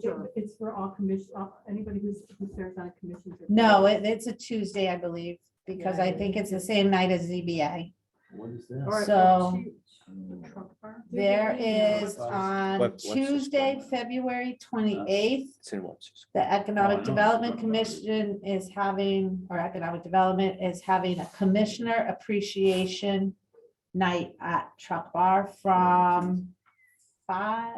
Sure. It's for all commission, all- anybody who's, who serves on commissions. or- No, it- it's a Tuesday, I believe, because Yeah, I it think is. it's the same night as ZBA. What is Or- or this? So- she- Oh. the truck farm? There Yeah. is What- on what's this Tuesday, one? February twenty-eighth, It's in Webster's. the Oh, I know. Economic Development Commission is having, or Economic Development is having a Commissioner Appreciation Night at Truck Bar from five,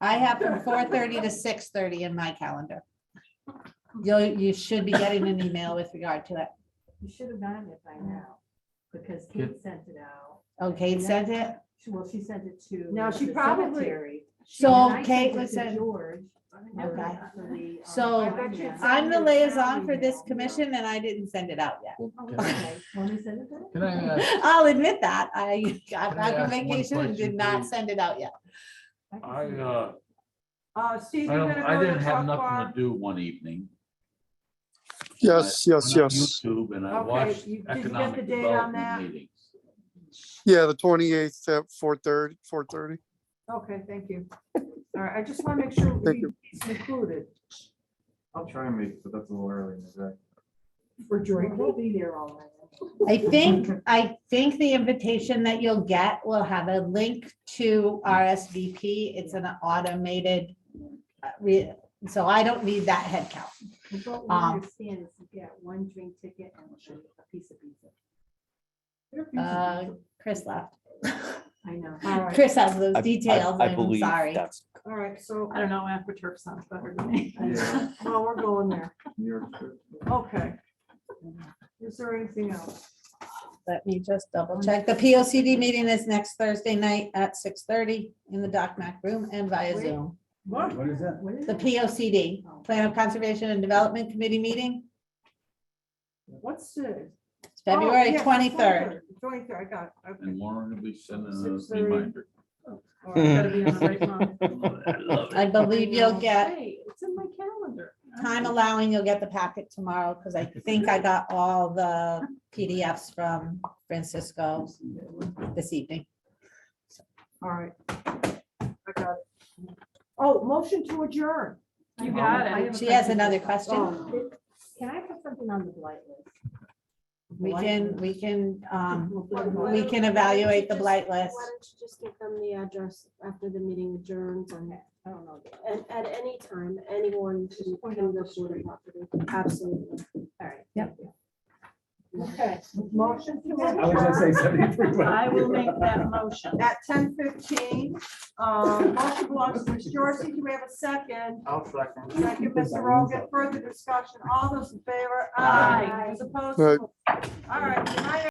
I have from four thirty to six thirty in my calendar. You, you should be getting an email with regard to it. You should have gotten it by now, because Kate sent it out. Oh, Kate sent it? She- Well, she sent it to. No, she the probably- secretary, and So I Kate sent it was to sent, George. and Okay. actually, um, So, I bet you it's I'm on the your liaison for this email. commission and I didn't send it out yet. Oh, okay. Want me to send it then? Can I ask, I'll admit that. I got Can back I on ask one vacation and did question, not please? send it out yet. I can I, send it. uh, Uh, Steve, I you're don't, gonna I go to didn't the have truck nothing farm? to do one evening. Yes, I yes, went on yes. YouTube and I Okay, watched you- did you get the economic date on that? development meetings. Yeah, the twenty-eighth at four thirty, four thirty. Okay, thank you. All right, I just want to make sure Thank we you. included I'll try and make, it, but that's a little early in the day. for drinking. We'll be there all night. I think, I think the invitation that you'll get will have a link to RSVP. It's an automated. uh, re- So I don't need that headcount. But What we Um, understand is you get one drink ticket and a piece of pizza. Uh, Chris left. I know. All right, Chris has those details. I'm sorry. That's all right, so, I don't know, after Turk sounds better to me. Yeah. well, we're going there. New York trip. Okay. Is there anything else? Let me just double check. The P O C D meeting is next Thursday night at six thirty in the Doc Mac room and via Wait. Zoom. What? What is that? What is The it? P O C D, Plan of Conservation and Development Committee meeting, What's the? It's Oh, February twenty-third. Twenty-third, I got it, okay. And Lauren will be sending Six a thirty. reminder. Mm. All Hmm. right. Gotta be on the right time. I love I it. believe you'll get, Hey, It's in my calendar. time allowing, you'll get the packet tomorrow, because I think I got all the PDFs from Francisco this evening. All right. I got it. Oh, motion to adjourn. You got it. I have a She has question. another question. Oh, Can I put something on the blight list? We can, we can, um, What- we can evaluate the blight list. Why don't you just give them the address after the meeting adjourns and, I don't know. All and at any time, anyone can can go through the property, absolutely. right. Yep. Okay, motion to I was gonna adjourn say seventy-three. but- that motion. at ten fifteen. Um, motion belongs to Ms. Dorsey. Do we have a second? I'll second. Second, Mr. Rogan. Further discussion. All those in favor? Aye. As opposed? Right. All right. good night,